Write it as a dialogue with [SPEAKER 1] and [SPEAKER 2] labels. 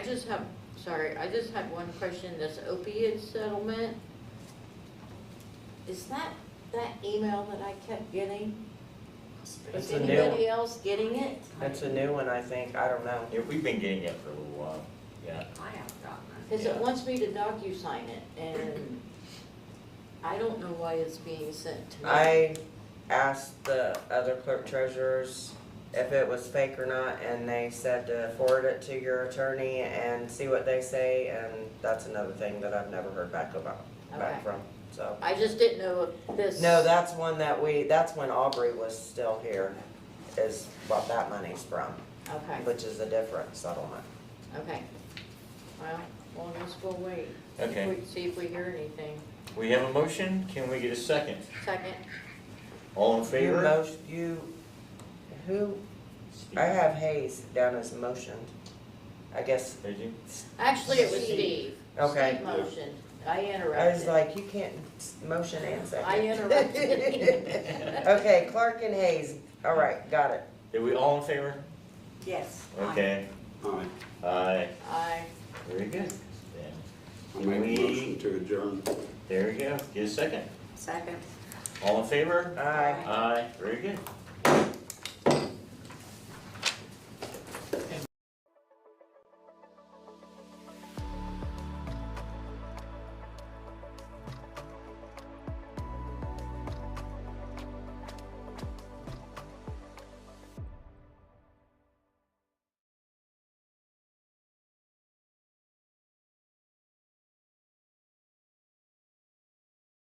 [SPEAKER 1] just have, sorry, I just have one question, this opiate settlement. Is that, that email that I kept getting,
[SPEAKER 2] That's
[SPEAKER 1] is
[SPEAKER 2] the new one.
[SPEAKER 1] anybody else getting it?
[SPEAKER 2] That's a new one, I think, I don't know.
[SPEAKER 3] Yeah, we've been getting it for a little while, yeah.
[SPEAKER 4] I haven't gotten it.
[SPEAKER 1] Cause it
[SPEAKER 3] Yeah.
[SPEAKER 1] wants me to docu-sign it and I don't know why it's being sent to me.
[SPEAKER 2] I asked the other clerk treasurers if it was fake or not, and they said to forward it to your attorney and see what they say, and that's another thing that I've never heard back about,
[SPEAKER 1] Okay.
[SPEAKER 2] back from, so.
[SPEAKER 1] I just didn't know if this.
[SPEAKER 2] No, that's one that we, that's when Aubrey was still here, is what that money's from,
[SPEAKER 1] Okay,
[SPEAKER 2] which is a different settlement.
[SPEAKER 1] okay. Well, we'll just go wait.
[SPEAKER 3] Okay,
[SPEAKER 1] See if we hear anything.
[SPEAKER 3] we have a motion, can we get a second?
[SPEAKER 1] Second,
[SPEAKER 3] All in
[SPEAKER 2] You
[SPEAKER 3] favor?
[SPEAKER 2] most, you, who, I have Hayes down as motioned, I guess,
[SPEAKER 3] Did you?
[SPEAKER 1] actually, it was
[SPEAKER 2] Steve.
[SPEAKER 1] Steve.
[SPEAKER 2] okay.
[SPEAKER 1] Steve motioned, I
[SPEAKER 2] I was
[SPEAKER 1] interrupted.
[SPEAKER 2] like, you can't s- motion and second.
[SPEAKER 1] I interrupted.
[SPEAKER 2] Okay, Clark and Hayes, all right, got it.
[SPEAKER 3] Did we all in favor?
[SPEAKER 4] Yes.
[SPEAKER 3] Okay,
[SPEAKER 5] Aye.
[SPEAKER 3] aye,
[SPEAKER 1] I,
[SPEAKER 3] very good. Yeah.
[SPEAKER 5] I make a
[SPEAKER 3] We-
[SPEAKER 5] motion to adjourn.
[SPEAKER 3] There we go, get a second.
[SPEAKER 4] Second.
[SPEAKER 3] All in favor?
[SPEAKER 2] Aye.
[SPEAKER 3] Aye, very good.